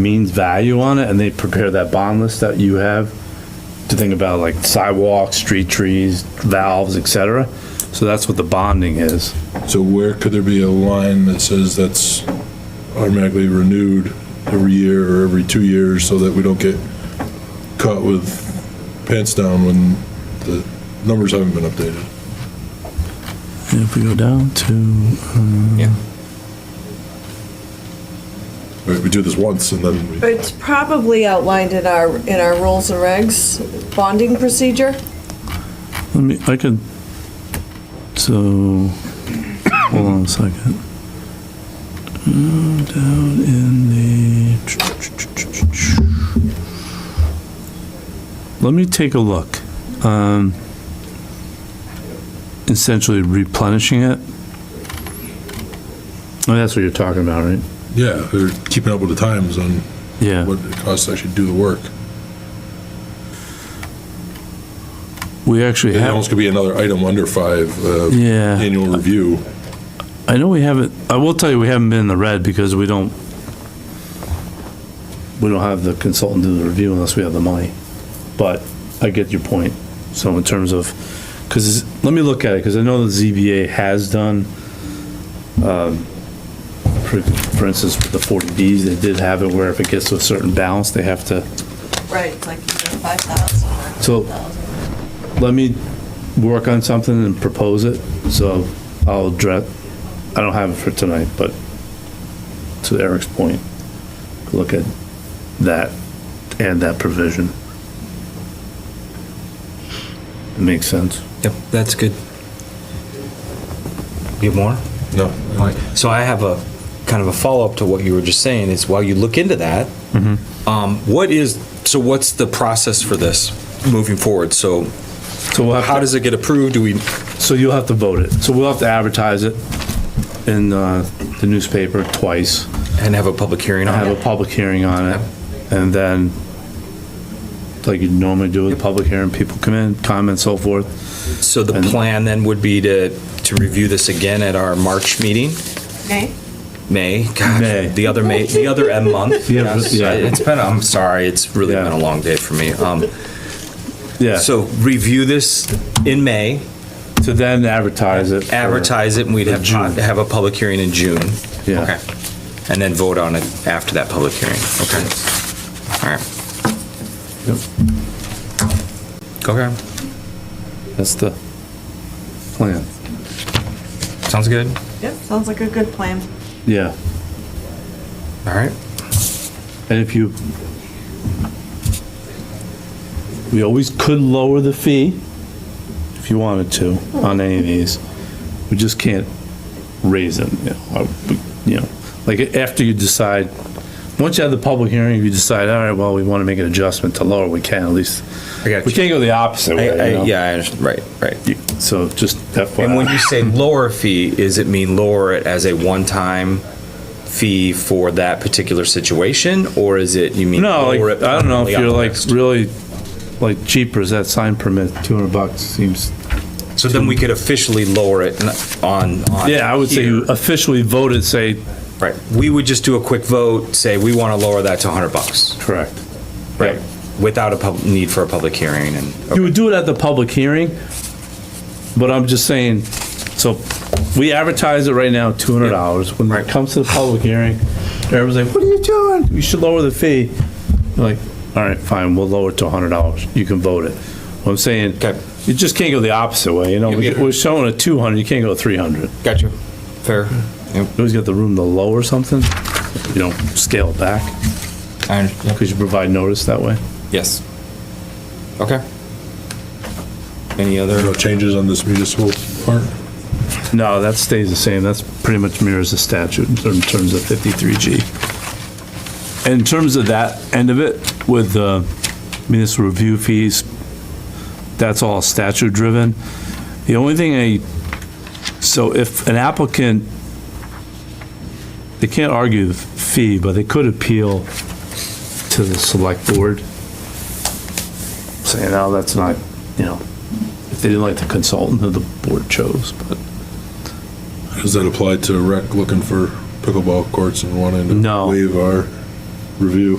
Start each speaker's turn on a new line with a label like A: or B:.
A: means value on it, and they prepare that bond list that you have to think about like sidewalks, street trees, valves, et cetera. So that's what the bonding is.
B: So where could there be a line that says that's automatically renewed every year or every two years so that we don't get caught with pants down when the numbers haven't been updated?
C: If we go down to,
B: Right, We do this once and then we,
D: It's probably outlined in our, in our rules and regs, bonding procedure.
C: let me, I could, so, hold on a second. Uh, Down in the. Let me take a look. Um, Essentially replenishing it. Oh,
A: And that's what you're talking about, right?
B: yeah, they're keeping up with the times on
C: Yeah.
B: what it costs to actually do the work.
C: We actually
B: It
C: have.
B: almost could be another item under five, uh,
C: Yeah.
B: annual review.
C: I know we haven't, I will tell you, we haven't been in the red because we don't,
A: We don't have the consultant do the review unless we have the money. But I get your point. So in terms of, because, let me look at it, because I know the ZBA has done, um, for for instance, with the 40Bs, they did have it where if it gets to a certain balance, they have to
D: Right, it's like five thousand.
A: So- let me work on something and propose it, so I'll address, I don't have it for tonight, but to Eric's point, look at that and that provision. It makes sense.
E: Yep, that's good. You have more?
B: No,
E: All right. So I have a kind of a follow-up to what you were just saying, is while you look into that,
A: Mm-hmm.
E: um, what is, so what's the process for this moving forward? So
A: So we'll
E: how
A: have,
E: does it get approved? Do we,
A: to- so you'll have to vote it, so we'll have to advertise it in uh, the newspaper twice,
E: and have a public hearing on
A: have
E: it?
A: a public hearing on it, and then, like you normally do with a public hearing, people come in, comment, so forth,
E: So the
A: and-
E: plan then would be to, to review this again at our March meeting? May,
A: May.
E: gosh, the other May, the other M month.
A: The other-
E: Yes,
A: yeah.
E: I- It's been, I'm sorry, it's really
A: Yeah.
E: been a long day for me. Um,
A: yeah.
E: So review this in May,
A: To then advertise it. for-
E: advertise it, and we'd have,
A: June.
E: have a public hearing in June.
A: Yeah.
E: Okay. And then vote on it after that public hearing. Okay. All right.
A: Yep.
E: Okay,
A: That's the plan.
E: sounds good.
D: Yep, sounds like a good plan.
A: Yeah.
E: All right.
A: And if you, we always could lower the fee if you wanted to on any of these. We just can't raise them, you know, I- we- you know, like after you decide, once you have the public hearing, if you decide, all right, well, we want to make an adjustment to lower, we can at least.
E: I got
A: We
E: you.
A: can't go the opposite way,
E: I-
A: you
E: I-
A: know?
E: Yeah, I understand. right, right.
A: So just
E: And when
A: FYI.
E: you say lower fee, is it mean lower it as a one-time fee for that particular situation? Or is it, you mean?
A: No, like,
E: lower it
A: I don't know if
E: permanently on
A: you're
E: the
A: like
E: list?
A: really, like cheaper, is that sign permit, 200 bucks seems
E: So then we could officially lower it on. on
A: Yeah, I would say you
E: here.
A: officially voted, say,
E: Right, we would just do a quick vote, say we want to lower that to 100 bucks.
A: correct.
E: Right. Without a pub, need for a public hearing and.
A: You would do it at the public hearing, but I'm just saying, so we advertise it right now, two hundred dollars. When it
E: Right.
A: comes to the public hearing, everyone's like, what are you doing? You should lower the fee. You're like, all right, fine, we'll lower it to hundred dollars. You can vote it. What I'm saying,
E: Okay.
A: you just can't go the opposite way, you know?
E: Yeah, yeah.
A: We're showing a two hundred, you can't go three hundred.
E: Gotcha. Fair. Yep,
A: You always got the room to lower something, you don't scale it back,
E: I understand.
A: because you provide notice that way.
E: Yes. Okay. Any
B: there are
E: other?
B: no changes on this municipal part?
A: No, that stays the same. That's pretty much mirrors the statute in ter- in terms of 53G. In terms of that end of it, with the municipal review fees, that's all statute-driven. The only thing I, so if an applicant, they can't argue the fee, but they could appeal to the select board, saying, no, that's not, you know, if they didn't like the consultant who the board chose, but.
B: Does that apply to rec looking for pickleball courts and wanting to
A: No.
B: waive our review.